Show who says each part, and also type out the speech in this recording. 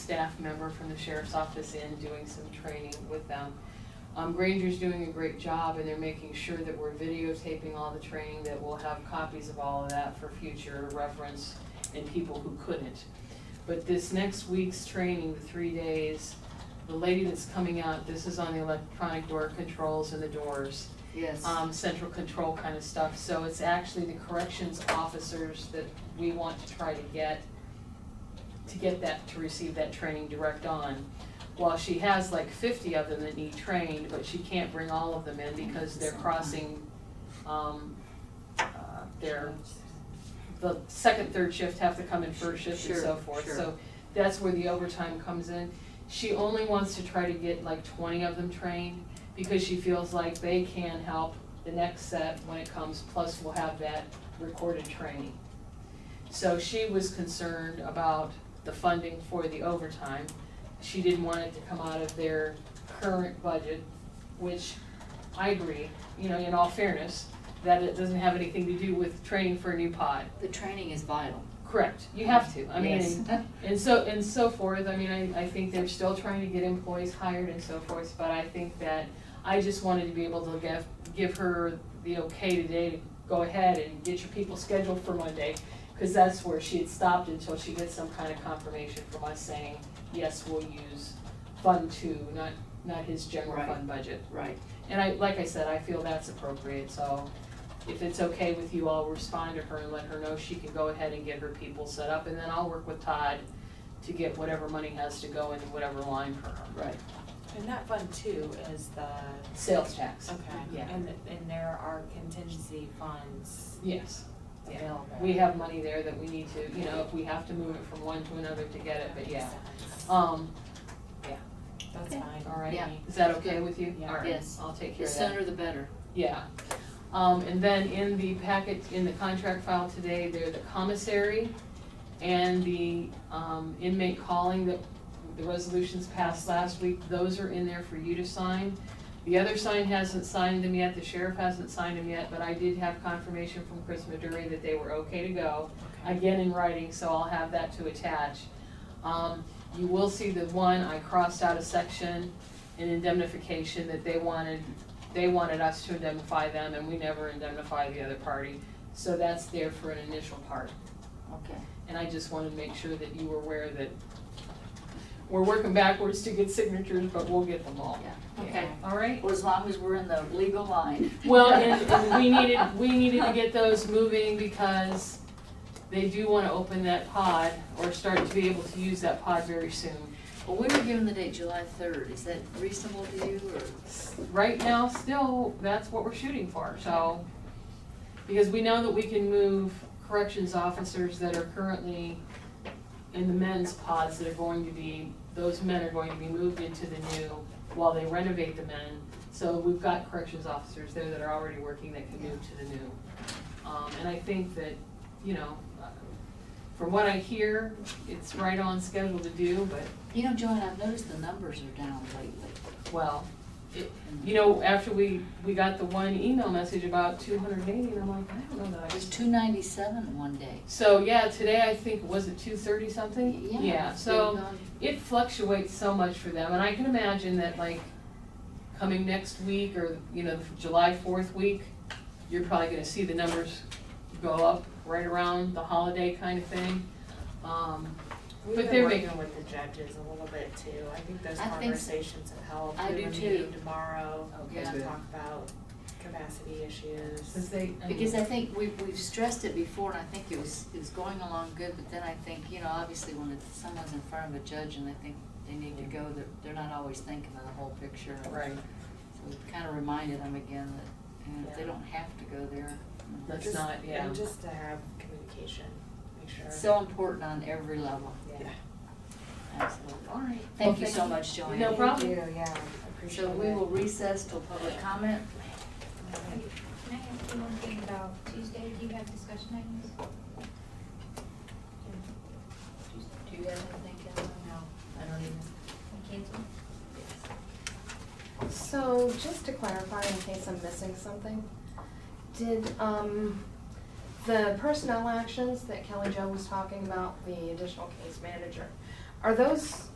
Speaker 1: staff member from the sheriff's office in doing some training with them. Um, Granger's doing a great job and they're making sure that we're videotaping all the training, that we'll have copies of all of that for future reference and people who couldn't. But this next week's training, the three days, the lady that's coming out, this is on the electronic door controls and the doors
Speaker 2: Yes.
Speaker 1: um, central control kind of stuff, so it's actually the corrections officers that we want to try to get, to get that, to receive that training direct on. While she has like fifty of them that need trained, but she can't bring all of them in because they're crossing, um, uh, their, the second, third shift have to come in first shift and so
Speaker 2: Sure,
Speaker 1: forth,
Speaker 2: sure.
Speaker 1: so that's where the overtime comes in. She only wants to try to get like twenty of them trained, because she feels like they can help the next set when it comes, plus we'll have that recorded training. So she was concerned about the funding for the overtime. She didn't want it to come out of their current budget, which I agree, you know, in all fairness, that it doesn't have anything to do with training for a new pod.
Speaker 2: The training is vital.
Speaker 1: Correct, you have to, I mean,
Speaker 2: Yes.
Speaker 1: and so, and so forth, I mean, I, I think they're still trying to get employees hired and so forth, but I think that I just wanted to be able to give, give her the okay today to go ahead and get your people scheduled for Monday, cause that's where she had stopped until she gets some kind of confirmation from us saying, yes, we'll use fund two, not, not his general
Speaker 2: Right.
Speaker 1: fund budget.
Speaker 2: Right.
Speaker 1: And I, like I said, I feel that's appropriate, so if it's okay with you, I'll respond to her and let her know she can go ahead and get her people set up, and then I'll work with Todd to get whatever money has to go into whatever line for her.
Speaker 2: Right.
Speaker 3: And that fund too is the,
Speaker 1: Sales tax,
Speaker 3: okay,
Speaker 1: Yeah.
Speaker 3: and, and there are contingency funds
Speaker 1: yes. Yeah.
Speaker 3: available.
Speaker 1: We have money there that we need to, you know, if we have to move it from one to another to get it, but yeah.
Speaker 3: That's-
Speaker 1: Um,
Speaker 3: That's
Speaker 2: Okay.
Speaker 3: fine.
Speaker 1: all right,
Speaker 2: Yeah.
Speaker 1: is that okay with you?
Speaker 3: Yeah.
Speaker 1: All right,
Speaker 2: Yes.
Speaker 1: I'll take care
Speaker 2: The
Speaker 1: of that.
Speaker 2: sooner the better.
Speaker 1: Yeah. Um, and then in the packet, in the contract file today, they're the commissary and the, um, inmate calling that the resolutions passed last week, those are in there for you to sign. The other sign hasn't signed them yet, the sheriff hasn't signed them yet, but I did have confirmation from Chris Maduri that they were okay to go again in writing, so I'll have that to attach. Um, you will see the one, I crossed out a section in indemnification that they wanted, they wanted us to indemnify them and we never indemnify the other party. So that's there for an initial part.
Speaker 2: Okay.
Speaker 1: And I just wanted to make sure that you were aware that we're working backwards to get signatures, but we'll get them all.
Speaker 2: Okay.
Speaker 1: All right?
Speaker 2: Well, as long as we're in the legal line.
Speaker 1: Well, and, and we needed, we needed to get those moving because they do wanna open that pod or start to be able to use that pod very soon.
Speaker 2: Well, we were given the date July third. Is that reasonable to you or?
Speaker 1: Right now, still, that's what we're shooting for, so. Because we know that we can move corrections officers that are currently in the men's pods that are going to be, those men are going to be moved into the new while they renovate the men. So we've got corrections officers there that are already working that can move to the new. Um, and I think that, you know, uh, from what I hear, it's right on schedule to do, but,
Speaker 2: You know, Joanne, I've noticed the numbers are down lately.
Speaker 1: well, it, you know, after we, we got the one email message about two hundred and eighty, and I'm like, I don't know that I
Speaker 2: It was
Speaker 1: just.
Speaker 2: two ninety-seven one day.
Speaker 1: So, yeah, today I think, was it two thirty something?
Speaker 2: Yeah.
Speaker 1: Yeah,
Speaker 2: it's
Speaker 1: so.
Speaker 2: been gone.
Speaker 1: it fluctuates so much for them, and I can imagine that like coming next week or, you know, July fourth week, you're probably gonna see the numbers go up right around the holiday kind of thing. Um,
Speaker 3: We've
Speaker 1: But
Speaker 3: been
Speaker 1: they're
Speaker 3: working with the judges a little bit too. I think those
Speaker 2: I think so.
Speaker 3: conversations have helped.
Speaker 2: I do
Speaker 3: We have a
Speaker 2: too. Oh,
Speaker 3: meeting tomorrow
Speaker 1: Okay,
Speaker 2: Yeah.
Speaker 3: to
Speaker 1: good.
Speaker 3: talk about capacity
Speaker 1: since
Speaker 3: issues.
Speaker 1: they, I mean,
Speaker 2: Because I think we, we've stressed it before, and I think it was, it was going along good, but then I think, you know, obviously when it's, someone's in front of a judge and they think they need to go, they're, they're not always thinking of the whole picture.
Speaker 1: Right,
Speaker 2: So we kind of reminded them again that, you know, if they
Speaker 1: Yeah.
Speaker 2: don't have to go there. you know.
Speaker 1: that's
Speaker 3: Just-
Speaker 1: not, yeah.
Speaker 3: And just to have communication, make sure.
Speaker 2: It's so important on every level,
Speaker 3: Yeah.
Speaker 2: absolutely.
Speaker 1: All right.
Speaker 2: Thank you so much, Joanne.
Speaker 1: No problem.
Speaker 3: Thank you, yeah, I appreciate it.
Speaker 2: So we will recess till public comment.
Speaker 4: Can I ask you one thing about Tuesday? Do you have discussion items?
Speaker 2: Do you have anything, Kevin? No. I don't even.
Speaker 4: We cancel?
Speaker 5: So, just to clarify, in case I'm missing something, did, um, the personnel actions that Kelly Jo was talking about, the additional case manager, are those